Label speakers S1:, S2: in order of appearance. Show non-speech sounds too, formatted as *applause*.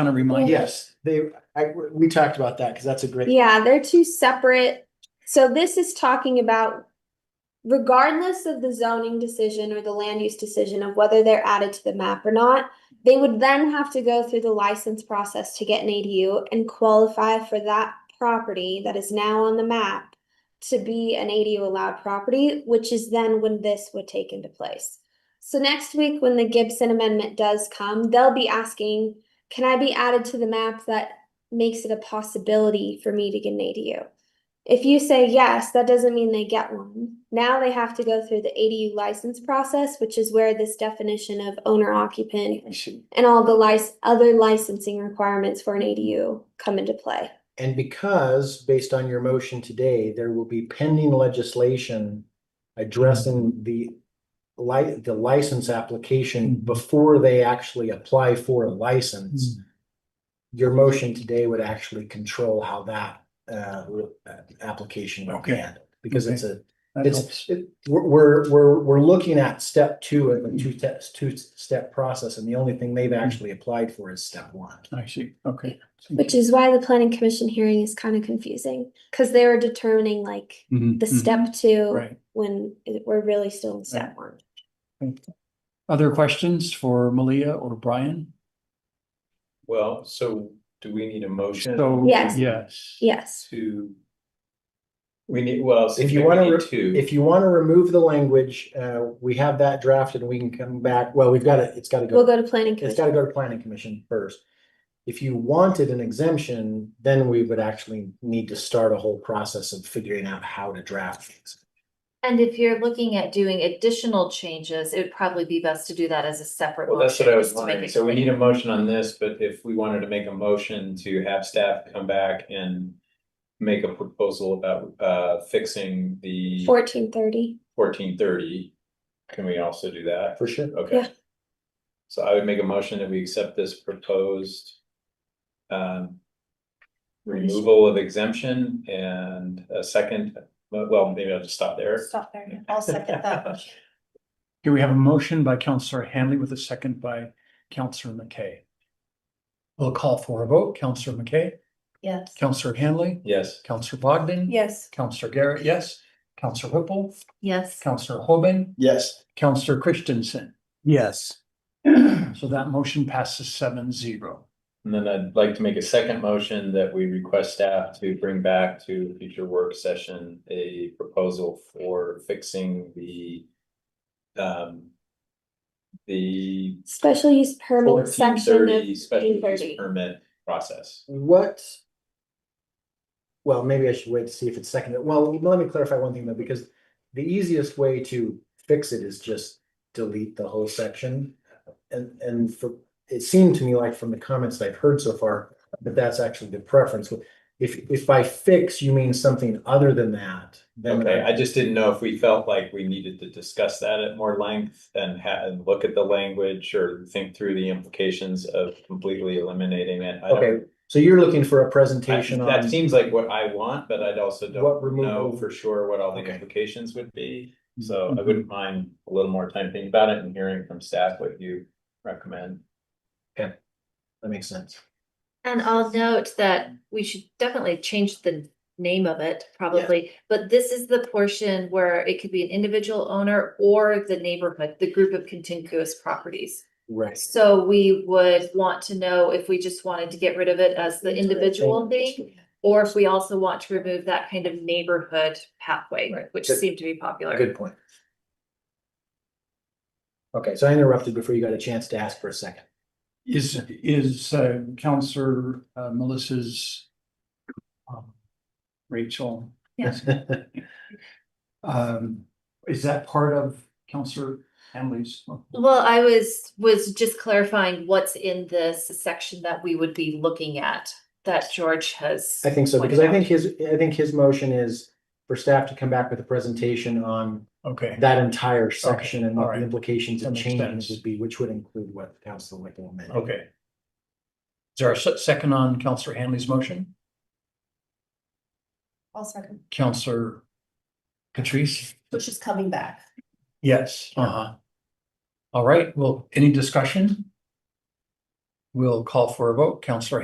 S1: kind of remind us.
S2: Uh, Yes, they, I, we talked about that because that's a great.
S3: Yeah, they're two separate. So this is talking about regardless of the zoning decision or the land use decision of whether they're added to the map or not, they would then have to go through the license process to get an ADU and qualify for that property that is now on the map to be an ADU allowed property, which is then when this would take into place. So next week, when the Gibson amendment does come, they'll be asking, can I be added to the map that makes it a possibility for me to get an ADU. If you say yes, that doesn't mean they get one. Now they have to go through the ADU license process, which is where this definition of owner occupant
S2: We should-
S3: and all the lic- other licensing requirements for an ADU come into play.
S2: And because, based on your motion today, there will be pending legislation
S1: Mm-hmm.
S2: addressing the li- the license application
S1: Mm-hmm.
S2: before they actually apply for a license.
S1: Mm-hmm.
S2: Your motion today would actually control how that uh, re- uh, application would be
S1: Okay.
S2: handled. Because it's a,
S1: That
S2: it's,
S1: helps.
S2: it- we're, we're, we're, we're looking at step two of the two steps, two step process, and the only thing they've actually applied for is step one.
S1: I see, okay.
S3: Which is why the planning commission hearing is kind of confusing, because they were determining like the step two
S1: Mm-hmm. Right.
S3: when it- we're really still in step one.
S1: Other questions for Malia or Brian?
S4: Well, so do we need a motion?
S1: So,
S3: Yes.
S1: yes.
S3: Yes.
S4: To. We need, well.
S2: If you wanna re-
S4: to,
S2: If you want to remove the language, uh, we have that drafted, we can come back, well, we've got to, it's got to
S3: We'll
S2: go,
S3: go to planning
S2: it's got to
S3: commission.
S2: go to planning commission first. If you wanted an exemption, then we would actually need to start a whole process of figuring out how to draft things.
S5: And if you're looking at doing additional changes, it would probably be best to do that as a separate.
S4: well, that's what
S5: motion,
S4: I was
S5: just to make
S4: wondering.
S5: it
S4: So we
S5: clear.
S4: need a motion on this, but if we wanted to make a motion to have staff come back and. Make a proposal about uh fixing the
S3: Fourteen thirty.
S4: fourteen thirty. Can we also do that?
S2: For sure.
S3: Yeah.
S4: Okay. So I would make a motion that we accept this proposed. Um. Removal of exemption and a second, well, maybe I'll just stop there.
S6: Stop there. I'll second
S4: *laughs*
S6: that motion.
S1: Here we have a motion by Counselor Hanley with a second by Counselor McKay. We'll call for a vote. Counselor McKay,
S6: Yes.
S1: Counselor Hanley,
S4: Yes,
S1: Counselor Bogdan.
S6: Yes.
S1: Counselor Garrett, yes. Counselor Whipple,
S5: Yes,
S1: Counselor Hoban,
S2: Yes.
S1: Counselor Christensen.
S2: Yes.
S1: So that motion passes seven zero.
S4: and then I'd like to make a second motion that we request staff to bring back to a future work session a proposal for fixing the. Um. The
S3: Special use permit
S4: fourteen
S3: section of
S4: thirty special
S3: June
S4: use
S3: 30.
S4: permit process.
S2: What? Well, maybe I should wait to see if it's seconded. Well, let me clarify one thing though, because the easiest way to fix it is just delete the whole section. And, and for, it seemed to me like from the comments that I've heard so far, that that's actually the preference. If, if by fix you mean something other than that, then.
S4: Okay, I just didn't know if we felt like we needed to discuss that at more length and ha- and look at the language or think through the implications of completely eliminating it. I don't-
S2: Okay, so you're looking for a
S4: I-
S2: presentation
S4: That
S2: on
S4: seems like what I want, but I'd also
S2: What
S4: don't know
S2: removal-
S4: for sure what all the
S2: Okay. Mm-hmm.
S4: implications would be. So I wouldn't mind a little more time thinking about it and hearing from staff what you recommend.
S2: that makes sense.
S5: and I'll note that we should definitely change the name of it, probably. But this is the portion where it could be an individual owner or the neighborhood, the group of contiguous properties.
S2: Right.
S5: So we would want to know if we just wanted to get rid of it as the individual thing. Or if we also want to remove that kind of neighborhood pathway,
S2: Right.
S5: which
S2: Good.
S5: seemed to be popular.
S2: Good point. Okay, so I interrupted before you got a chance to ask for a second.
S1: Is, is uh, Counselor uh, Melissa's um, Rachel,
S5: Yes.
S1: um, is that part of Counselor Hanley's?
S5: Well, I was, was just clarifying what's in this section that we would be looking at, that George has.
S2: I think so, because
S5: pointed
S2: I
S5: out.
S2: think his, I think his motion is for staff to come back with a presentation on
S1: Okay,
S2: that entire section and what
S1: alright.
S2: the implications
S1: That
S2: and
S1: makes
S2: changes
S1: sense.
S2: would be, which would include what the council would recommend.
S1: okay. Is there a se- second on Counselor Hanley's motion?
S6: I'll second.
S1: Counselor Catrice?
S6: Which is coming back.
S1: Yes. Uh-huh. All right, well, any discussion? We'll call for a vote. Counselor